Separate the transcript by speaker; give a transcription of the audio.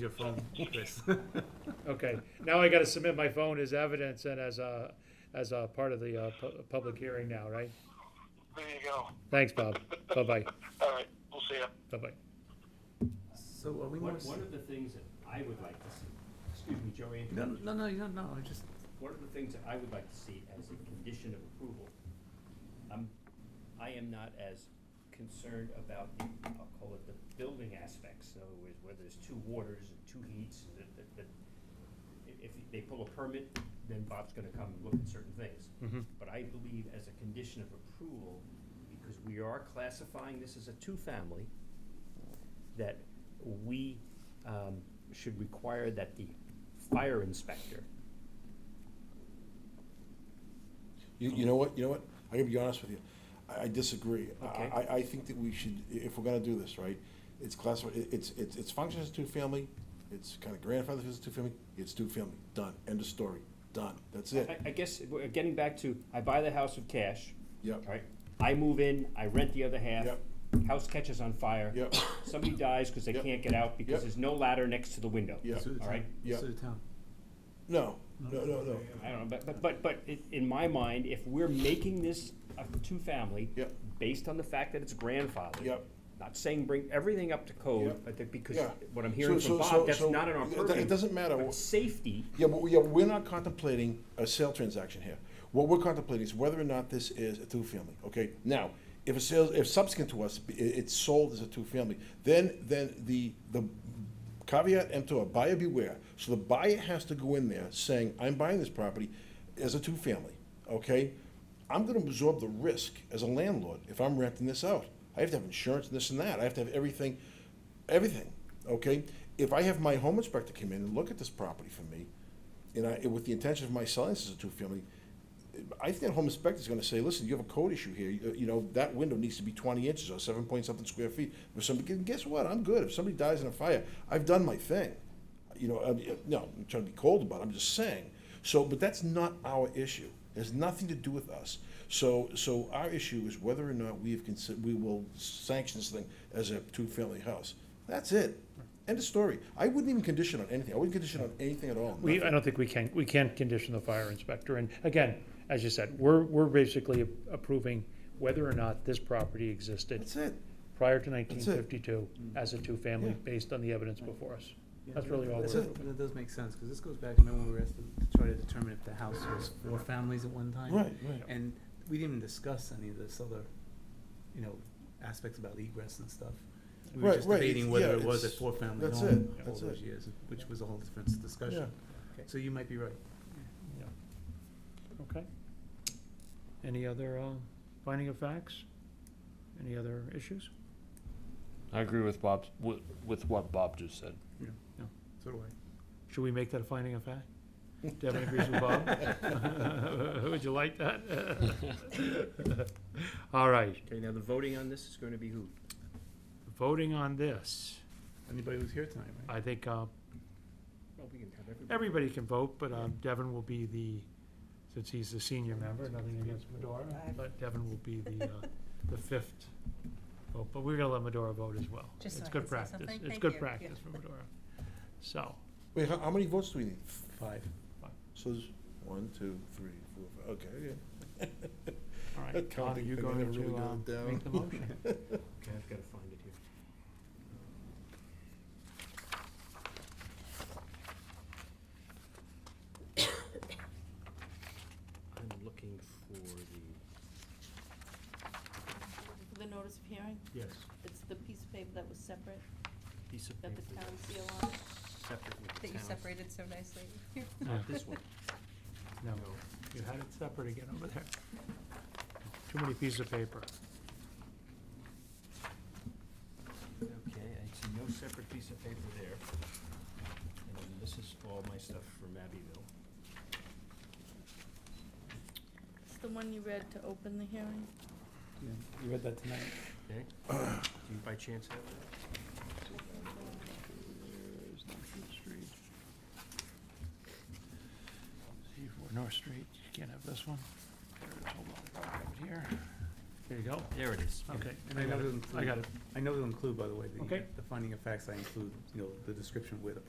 Speaker 1: Your phone, Chris.
Speaker 2: Okay, now I gotta submit my phone as evidence and as a, as a part of the, uh, pu- public hearing now, right?
Speaker 3: There you go.
Speaker 2: Thanks, Bob. Bye-bye,
Speaker 3: All right, we'll see ya.
Speaker 2: bye-bye.
Speaker 1: So are we
Speaker 4: One,
Speaker 1: more? s-
Speaker 4: one of the things that I would like to see, excuse me, Joey,
Speaker 1: No, no, no, no, no, I just,
Speaker 4: one of the things that I would like to see as a condition of approval, I'm, I am not as concerned about the, I'll call it the building aspects, in other words, where there's two waters and two heats, and that, that, that, i- if they pull a permit, then Bob's gonna come and look at certain things.
Speaker 2: Mhm.
Speaker 4: But I believe as a condition of approval, because we are classifying this as a two-family, that we, um, should require that the fire inspector
Speaker 5: You, you know what, you know what, I gotta be honest with you, I, I disagree. I-
Speaker 4: Okay.
Speaker 5: I, I think that we should, i- if we're gonna do this, right, it's classified, it- it's, it's, it's functions as two-family, it's kinda grandfathered as two-family, it's two-family, done, end of story, done, that's
Speaker 4: I,
Speaker 5: it.
Speaker 4: I guess, we're getting back to, I buy the house with cash.
Speaker 5: Yep.
Speaker 4: Right, I move in, I rent the other half.
Speaker 5: Yep.
Speaker 4: House catches on fire.
Speaker 5: Yep.
Speaker 4: Somebody dies because they
Speaker 5: Yep.
Speaker 4: can't get out because
Speaker 5: Yep.
Speaker 4: there's no ladder next to the window.
Speaker 5: Yep.
Speaker 1: sue the
Speaker 4: All
Speaker 1: town,
Speaker 4: right,
Speaker 5: Yeah.
Speaker 1: sue the town.
Speaker 5: No, no, no, no,
Speaker 4: I don't know, but, but, but, but i- in my mind, if we're making this a two-family.
Speaker 5: Yep.
Speaker 4: Based on the fact that it's grandfathered.
Speaker 5: Yep.
Speaker 4: Not saying bring everything up to code,
Speaker 5: Yep.
Speaker 4: but that because
Speaker 5: Yeah.
Speaker 4: what I'm
Speaker 5: So-
Speaker 4: hearing
Speaker 5: so-
Speaker 4: from
Speaker 5: so-
Speaker 4: Bob, that's
Speaker 5: so
Speaker 4: not in our
Speaker 5: it- it
Speaker 4: purview.
Speaker 5: doesn't matter
Speaker 4: But
Speaker 5: what-
Speaker 4: safety,
Speaker 5: yeah, but, we- yeah, we're not contemplating a sale transaction here. What we're contemplating is whether or not this is a two-family, okay? Now, if a sale, if subsequent to us, i it's sold as a two-family, then, then the, the caveat emptor, buyer beware. So the buyer has to go in there saying, I'm buying this property as a two-family, okay? I'm gonna absorb the risk as a landlord if I'm renting this out. I have to have insurance and this and that, I have to have everything, everything, okay? If I have my home inspector come in and look at this property for me, and I, with the intention of my selling this as a two-family, I think that home inspector's gonna say, listen, you have a code issue here, you you know, that window needs to be twenty inches or seven point something square feet. If somebody, and guess what, I'm good, if somebody dies in a fire, I've done my thing. You know, I, no, I'm trying to be cold about it, I'm just saying. So, but that's not our issue, it has nothing to do with us. So, so our issue is whether or not we have considered, we will sanction this thing as a two-family house. That's it, end of story. I wouldn't even condition on anything, I wouldn't condition on anything at all.
Speaker 2: We, I don't think we can, we can condition the fire inspector, and again, as you said, we're, we're basically approving whether or not this property existed
Speaker 5: That's it.
Speaker 2: prior to nineteen
Speaker 5: That's it.
Speaker 2: fifty-two as a two-family,
Speaker 5: Yeah.
Speaker 2: based on the evidence before us.
Speaker 1: Yeah,
Speaker 2: That's
Speaker 1: no,
Speaker 2: really all
Speaker 1: that's
Speaker 2: we're
Speaker 1: it.
Speaker 2: doing.
Speaker 1: That does make sense, because this goes back, remember we were asked to to try to determine if the house was four families at one time?
Speaker 5: Right, right.
Speaker 1: And we didn't even discuss any of this other, you know, aspects about egress and stuff. We were
Speaker 5: Right,
Speaker 1: just
Speaker 5: right,
Speaker 1: debating
Speaker 5: it's-
Speaker 1: whether
Speaker 5: yeah,
Speaker 1: it was a
Speaker 5: it's-
Speaker 1: four-family
Speaker 5: that's
Speaker 2: it,
Speaker 1: home all
Speaker 5: that's
Speaker 1: those
Speaker 5: it.
Speaker 1: years, which was a whole different discussion.
Speaker 4: Okay.
Speaker 1: So you might be right.
Speaker 2: Okay. Any other, uh, finding of facts? Any other issues?
Speaker 6: I agree with Bob's, with, with what Bob just said.
Speaker 1: So do I.
Speaker 2: Should we make that a finding of fact? Devin agrees with Bob? Would you like that? All right,
Speaker 4: okay, now the voting on this is gonna be who?
Speaker 2: voting on this,
Speaker 1: Anybody who's here tonight, right?
Speaker 2: I think, uh,
Speaker 4: Well, we can have everybody.
Speaker 2: everybody can vote, but, um, Devin will be the, since he's the senior member, nothing against Medora, but Devin will be the, uh, the fifth vote, but we're gonna let Medora vote as well.
Speaker 7: Just so
Speaker 2: It's
Speaker 7: I
Speaker 2: good
Speaker 7: can say
Speaker 2: practice.
Speaker 7: something.
Speaker 2: It's
Speaker 7: Thank
Speaker 2: good
Speaker 7: you.
Speaker 2: practice for Medora. So,
Speaker 5: Wait, how, how many votes do we need?
Speaker 1: Five.
Speaker 5: So there's one, two, three, four, five, okay, yeah.
Speaker 2: all right,
Speaker 5: That
Speaker 2: Tom, are
Speaker 5: counting
Speaker 2: you
Speaker 5: thing, I
Speaker 2: going
Speaker 5: never really
Speaker 2: to,
Speaker 5: got
Speaker 2: um,
Speaker 5: it down.
Speaker 2: make the motion?
Speaker 4: Okay, I've gotta find it here. I'm looking for the,
Speaker 7: The notice of hearing,
Speaker 4: yes,
Speaker 7: it's the piece of paper that was separate,
Speaker 4: piece of
Speaker 7: that
Speaker 4: paper
Speaker 7: the town
Speaker 4: that's
Speaker 7: seal on,
Speaker 4: separate with the
Speaker 7: that you
Speaker 4: town.
Speaker 7: separated so nicely.
Speaker 4: Not this one,
Speaker 2: No,
Speaker 4: no.
Speaker 2: you had it separate again over there. Too many pieces of paper.
Speaker 4: Okay, I see no separate piece of paper there. And then this is all my stuff from Abbeville.
Speaker 7: It's the one you read to open the hearing?
Speaker 1: Yeah, You read that tonight.
Speaker 4: Okay. Do you by chance have that?
Speaker 2: There's North Street. See for North Street, you can't have this one. There it is, hold on, I'll have it here. There you go.
Speaker 4: There it is.
Speaker 2: Okay,
Speaker 1: And
Speaker 2: I
Speaker 1: I
Speaker 2: got
Speaker 1: know
Speaker 2: it,
Speaker 1: it
Speaker 2: I got it.
Speaker 1: I know to include, by the way, the,
Speaker 2: Okay.
Speaker 1: the finding of facts, I include, you know, the description where the property